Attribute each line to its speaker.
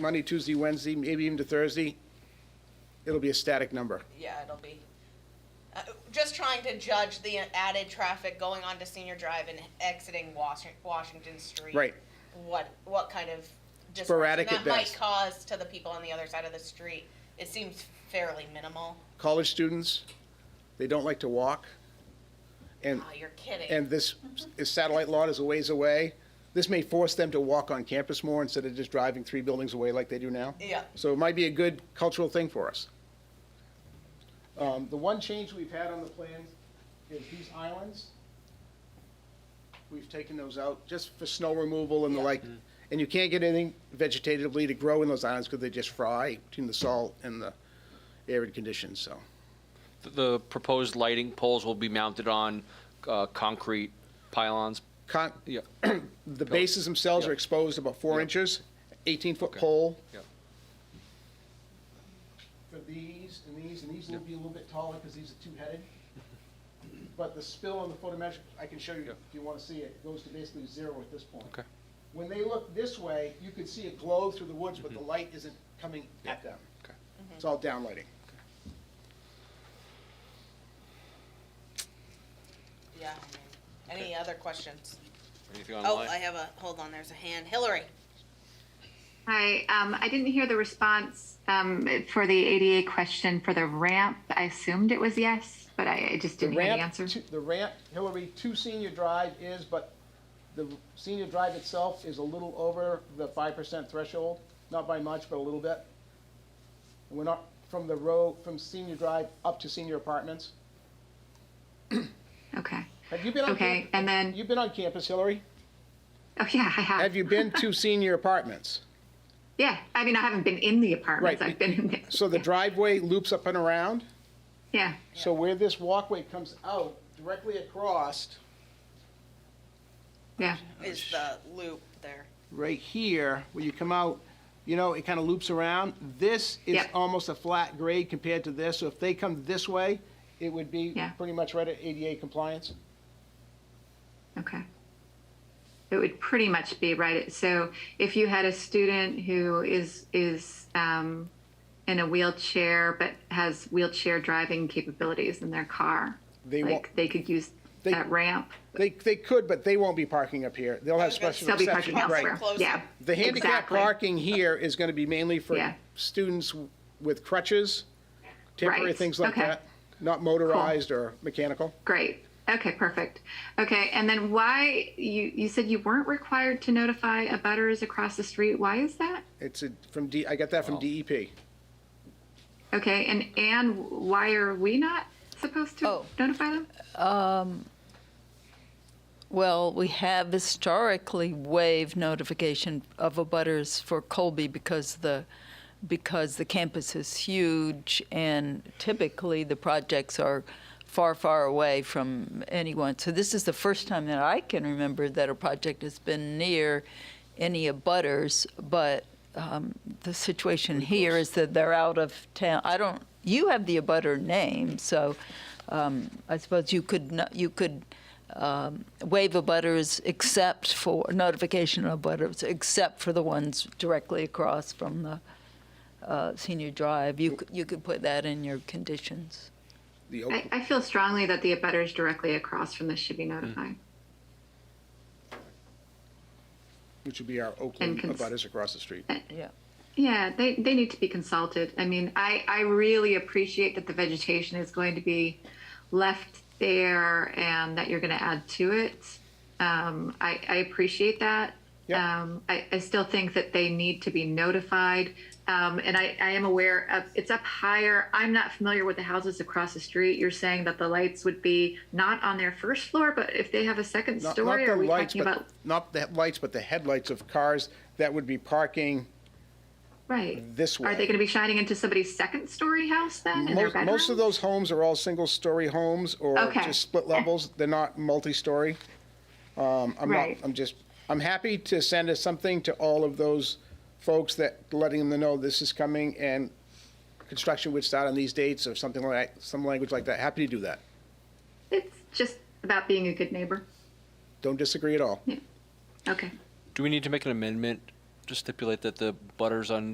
Speaker 1: Monday, Tuesday, Wednesday, maybe even to Thursday, it'll be a static number.
Speaker 2: yeah, it'll be. Uh, just trying to judge the added traffic going onto Senior Drive and exiting Wash- Washington Street.
Speaker 1: Right.
Speaker 2: What, what kind of disruption
Speaker 1: Sporadic
Speaker 2: that
Speaker 1: at
Speaker 2: might
Speaker 1: best.
Speaker 2: cause to the people on the other side of the street. It seems fairly minimal.
Speaker 1: College students, they don't like to walk. And,
Speaker 2: Oh, you're kidding.
Speaker 1: and this satellite lot is a ways away. This may force them to walk on campus more instead of just driving three buildings away like they do now.
Speaker 2: Yeah.
Speaker 1: So it might be a good cultural thing for us. Um, The one change we've had on the plan is these islands. We've taken those out just for snow removal and the
Speaker 2: Yeah. Mm-hmm.
Speaker 1: like. And you can't get anything vegetatively to grow in those islands because they just fry between the salt and the arid conditions, so.
Speaker 3: The proposed lighting poles will be mounted on uh, concrete pylons.
Speaker 1: Con-
Speaker 3: Yeah,
Speaker 1: The bases themselves are
Speaker 3: Yeah.
Speaker 1: exposed about four
Speaker 3: Yeah.
Speaker 1: inches, 18-foot
Speaker 3: Okay.
Speaker 1: pole.
Speaker 3: yeah.
Speaker 1: for these and these, and these will be a little bit taller because these are two-headed. But the spill on the photometric, I can show you
Speaker 3: Yeah.
Speaker 1: if you want to see it, goes to basically zero at this point.
Speaker 3: Okay.
Speaker 1: When they look this way, you could see it glow through the woods, but the light isn't coming at them.
Speaker 3: Mm-hmm. Okay.
Speaker 1: It's all downlighting.
Speaker 2: Yeah. I mean, Any other questions?
Speaker 3: Anything
Speaker 2: Oh,
Speaker 3: online?
Speaker 2: I have a, hold on, there's a hand. Hillary.
Speaker 4: Hi, um, I didn't hear the response, um, for the ADA question for the ramp. I assumed it was yes, but I, I just
Speaker 1: The
Speaker 4: didn't hear the
Speaker 1: ramp,
Speaker 4: answer.
Speaker 1: to- the ramp, Hillary, to Senior Drive is, but the Senior Drive itself is a little over the five percent threshold, not by much, but a little bit. And We're not, from the row, from Senior Drive up to Senior Apartments.
Speaker 4: Okay.
Speaker 1: Have you been on?
Speaker 4: Okay,
Speaker 1: camp-
Speaker 4: and then-
Speaker 1: You've been on campus, Hillary?
Speaker 4: Oh, yeah, I have.
Speaker 1: Have you been to Senior Apartments?
Speaker 4: Yeah, I mean, I haven't been in the apartments.
Speaker 1: Right.
Speaker 4: I've been in the,
Speaker 1: So the driveway loops up and around?
Speaker 4: yeah,
Speaker 1: So where this walkway comes out directly across,
Speaker 4: yeah.
Speaker 2: Is the loop there?
Speaker 1: right here, where you come out, you know, it kind of loops around. This is
Speaker 4: Yeah.
Speaker 1: almost a flat grade compared to this, so if they come this way, it would be
Speaker 4: Yeah.
Speaker 1: pretty much right at ADA compliance.
Speaker 4: Okay. It would pretty much be right. So if you had a student who is, is, um, in a wheelchair, but has wheelchair driving capabilities in their car,
Speaker 1: They won't,
Speaker 4: like they could use
Speaker 1: They-
Speaker 4: that ramp.
Speaker 1: they, they could, but they won't be parking up here. They'll have
Speaker 2: was gonna
Speaker 1: special
Speaker 4: They'll be
Speaker 1: reception.
Speaker 4: parking
Speaker 1: Right.
Speaker 4: elsewhere.
Speaker 2: Close.
Speaker 4: Yeah.
Speaker 1: The handicap
Speaker 4: exactly.
Speaker 1: parking here is going to be mainly for
Speaker 4: Yeah.
Speaker 1: students with crutches, temporary
Speaker 4: Right,
Speaker 1: things like
Speaker 4: okay.
Speaker 1: that, not motorized or mechanical.
Speaker 4: Great. Okay, perfect. Okay, and then why you you said you weren't required to notify abutters across the street? Why is that?
Speaker 1: It's a, from D, E I got that from DEP.
Speaker 4: Okay, and and why are we not supposed to
Speaker 5: Oh.
Speaker 4: notify them?
Speaker 5: Well, we have historically waived notification of abutters for Colby because the, because the campus is huge and typically the projects are far, far away from anyone. So this is the first time that I can remember that a project has been near any abutters, but um, the situation here is that they're out of town. I don't, you have the abutter name, so um, I suppose you could, no- you could um, waive abutters except for, notification of abutters, except for the ones directly across from the uh, senior drive. You, c- you could put that in your conditions.
Speaker 1: The
Speaker 4: I,
Speaker 1: Oak-
Speaker 4: I feel strongly that the abutters directly across from this should be notified.
Speaker 1: Which would be our Oakland
Speaker 4: cons-
Speaker 1: abutters across the street.
Speaker 5: Yeah.
Speaker 4: Yeah, they, they need to be consulted. I mean, I, I really appreciate that the vegetation is going to be left there and that you're going to add to it. Um, I, I appreciate that.
Speaker 1: Yeah.
Speaker 4: Um, I, I still think that they need to be notified. Um, and I, I am aware of it's up higher. I'm not familiar with the houses across the street. You're saying that the lights would be not on their first floor, but if they have a second
Speaker 1: Not-
Speaker 4: story,
Speaker 1: not the
Speaker 4: are we
Speaker 1: lights,
Speaker 4: talking
Speaker 1: but-
Speaker 4: about
Speaker 1: Not the lights, but the headlights of cars that would be parking
Speaker 4: right?
Speaker 1: this way.
Speaker 4: Are they going to be shining into somebody's second story house then? in their
Speaker 1: Most, most of
Speaker 4: bedroom?
Speaker 1: those homes are all single-story homes or
Speaker 4: Okay.
Speaker 1: just split levels. They're not multi-story. Um, I'm not,
Speaker 4: Right.
Speaker 1: I'm just, I'm happy to send us something to all of those folks that, letting them know this is coming and construction would start on these dates or something like, some language like that. Happy to do that.
Speaker 4: It's just about being a good neighbor.
Speaker 1: Don't disagree at all.
Speaker 4: Okay.
Speaker 3: Do we need to make an amendment to stipulate that the butters on